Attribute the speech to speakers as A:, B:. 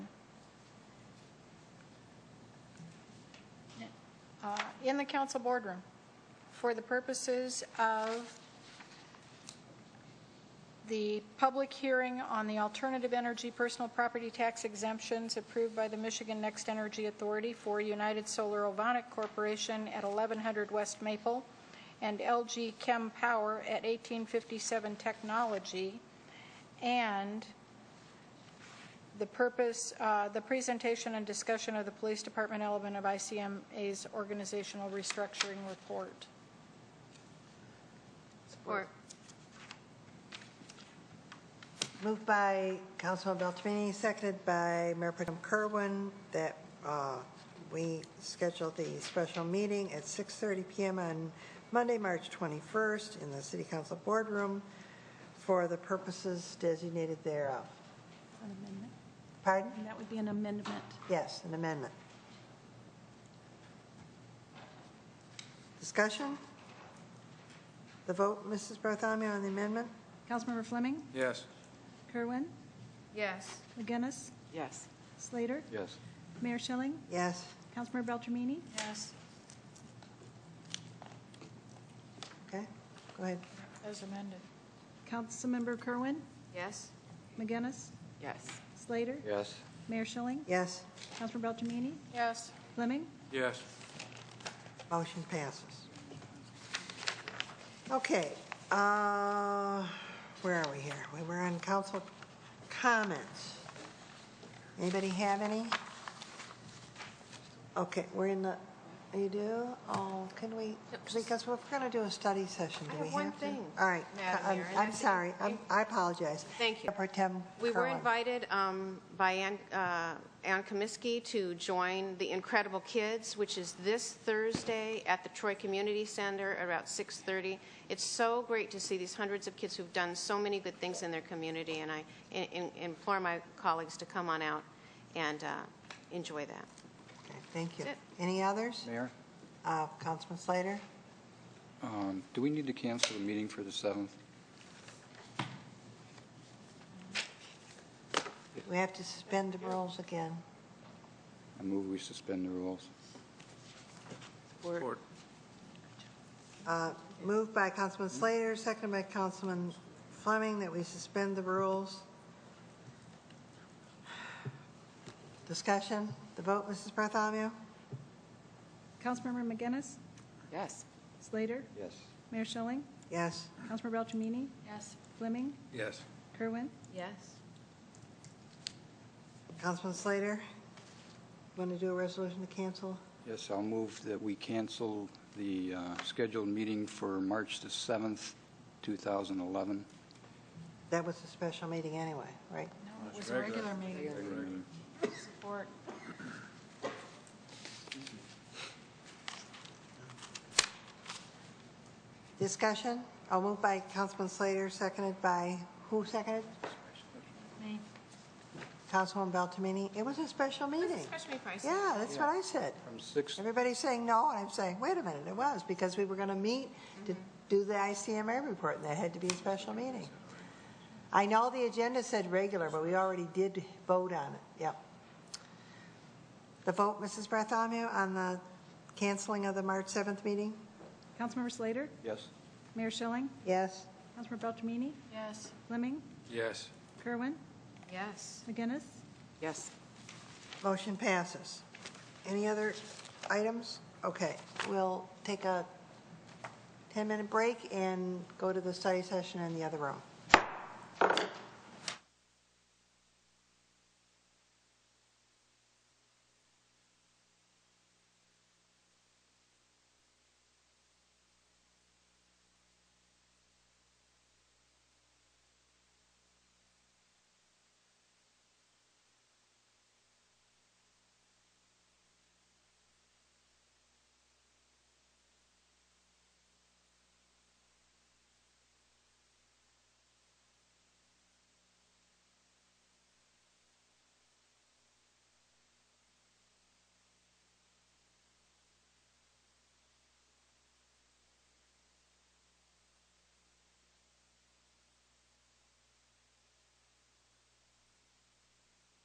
A: in the council boardroom for the purposes of the public hearing on the alternative energy personal property tax exemptions approved by the Michigan Next Energy Authority for United Solar Ovonic Corporation at 1100 West Maple and LG Chem Power at 1857 Technology, and the purpose, uh, the presentation and discussion of the Police Department element of ICMA's organizational restructuring report.
B: Support.
C: Moved by Councilman Beltramini, seconded by Mayor Pro Tem Kerwin, that uh, we schedule the special meeting at 6:30 PM on Monday, March 21st, in the City Council Boardroom for the purposes designated thereof.
D: An amendment.
C: Pardon?
D: And that would be an amendment.
C: Yes, an amendment. Discussion? The vote, Mrs. Bartholomew, on the amendment?
D: Councilmember Fleming,
E: Yes.
D: Kerwin,
B: Yes.
D: McGinnis,
F: yes,
D: Slater,
E: Yes.
D: Mayor Schilling,
C: Yes.
D: Councilmember Beltramini.
A: Yes.
C: Okay, go ahead.
A: As amended.
D: Councilmember Kerwin,
B: Yes.
D: McGinnis,
F: yes,
D: Slater,
E: Yes.
D: Mayor Schilling,
C: Yes.
D: Councilmember Beltramini,
A: Yes.
D: Fleming,
E: Yes.
C: Motion passes. Okay, uh, where are we here? We were on council comments. Anybody have any? Okay, we're in the, you do? Oh, can we, because we're going to do a study session. Do
B: I
C: we
B: have one
C: have to?
B: thing,
C: All right.
B: Madam
C: I'm-
B: Mayor, and
C: I'm
B: that's-
C: sorry, I'm- I apologize.
B: Thank you.
C: Pro Tem
B: We were
C: Kerwin.
B: invited um, by Ann uh, Ann Komisky to join the Incredible Kids, which is this Thursday at the Troy Community Center around 6:30. It's so great to see these hundreds of kids who've done so many good things in their community, and I in- in- implore my colleagues to come on out and uh, enjoy that.
C: Okay, Thank you.
B: That's
C: Any others?
E: Mayor?
C: Uh, Councilman Slater?
E: Um, Do we need to cancel the meeting for the 7th?
C: We have to suspend the rules again.
E: I move we suspend the rules.
F: support,
C: Uh, Moved by Councilman Slater, seconded by Councilman Fleming, that we suspend the rules. Discussion, the vote, Mrs. Bartholomew?
D: Councilmember McGinnis,
F: yes,
D: Slater,
E: Yes.
D: Mayor Schilling,
C: Yes.
D: Councilmember Beltramini,
A: Yes.
D: Fleming,
E: Yes.
D: Kerwin,
B: Yes.
C: Councilman Slater, want to do a resolution to cancel?
E: Yes, I'll move that we cancel the uh, scheduled meeting for March the 7th, 2011.
C: That was a special meeting anyway, right?
A: No, it was a regular meeting. Support.
C: Discussion, I'll move by Councilman Slater, seconded by, who seconded?
A: Me.
C: Councilman Beltramini. It was a special meeting.
B: Especially prices.
C: Yeah, that's what I said.
E: From 6,
C: Everybody's saying no, and I'm saying, wait a minute, it was, because we were going to meet to do the ICMA report, and that had to be a special meeting. I know the agenda said regular, but we already did vote on it, yep. The vote, Mrs. Bartholomew, on the canceling of the March 7th meeting?
D: Councilmember Slater,
E: yes?
D: Mayor Schilling,
C: Yes?
D: Councilmember Beltramini,
A: Yes.
D: Fleming,
E: Yes.
D: Kerwin,
B: Yes.
D: McGinnis,
F: yes.
C: Motion passes. Any other items? Okay, we'll take a 10-minute break and go to the study session in the other room.